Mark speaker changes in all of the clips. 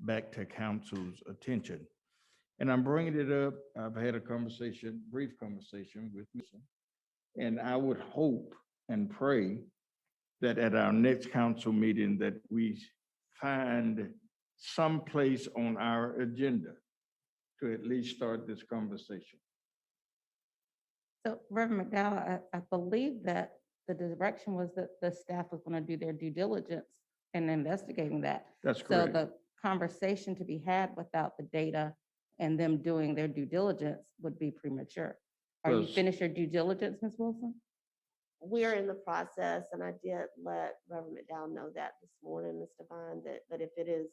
Speaker 1: back to council's attention. And I'm bringing it up, I've had a conversation, brief conversation with Mr. And I would hope and pray that at our next council meeting that we find some place on our agenda to at least start this conversation.
Speaker 2: So Reverend McDowell, I, I believe that the direction was that the staff was going to do their due diligence in investigating that.
Speaker 1: That's
Speaker 2: So
Speaker 1: correct.
Speaker 2: the conversation to be had without the data and them doing their due diligence would be premature. Are you
Speaker 1: Yes.
Speaker 2: finished your due diligence, Ms. Wilson?
Speaker 3: We're in the process, and I did let Reverend McDowell know that this morning, Ms. Devine, that, that if it is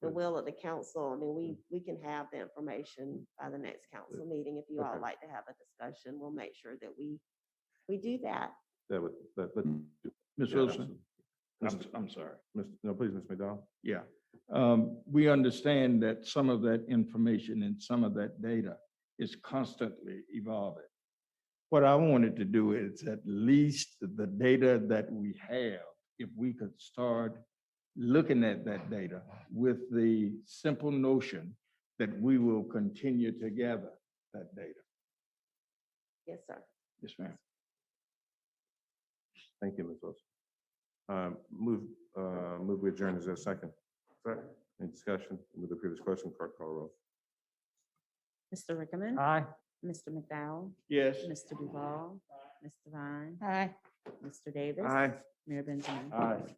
Speaker 3: the
Speaker 1: Good.
Speaker 3: will of the council, I mean, we, we can have the information by the next council meeting. If you all
Speaker 4: Okay.
Speaker 3: like to have a discussion, we'll make sure that we, we do that.
Speaker 4: That would, that, let
Speaker 1: Ms.
Speaker 4: yeah,
Speaker 1: Wilson, I'm,
Speaker 4: absolutely.
Speaker 1: I'm sorry.
Speaker 4: Miss- No, please, Ms. McDowell.
Speaker 1: Yeah. Um, we understand that some of that information and some of that data is constantly evolving. What I wanted to do is at least the data that we have, if we could start looking at that data with the simple notion that we will continue to gather that data.
Speaker 3: Yes, sir.
Speaker 1: Yes, ma'am.
Speaker 4: Thank you, Ms. Wilson. Um, Move, uh, move we adjourn. Is there a second? Second. Any discussion? With the previous question, clerk call roll.
Speaker 5: Mr. Rickman.
Speaker 1: Aye.
Speaker 5: Mr. McDowell.
Speaker 1: Yes.
Speaker 5: Mr. Duval. Mr. Vine.
Speaker 2: Aye.
Speaker 5: Mr. Davis. Mayor Benjamin.
Speaker 4: Aye.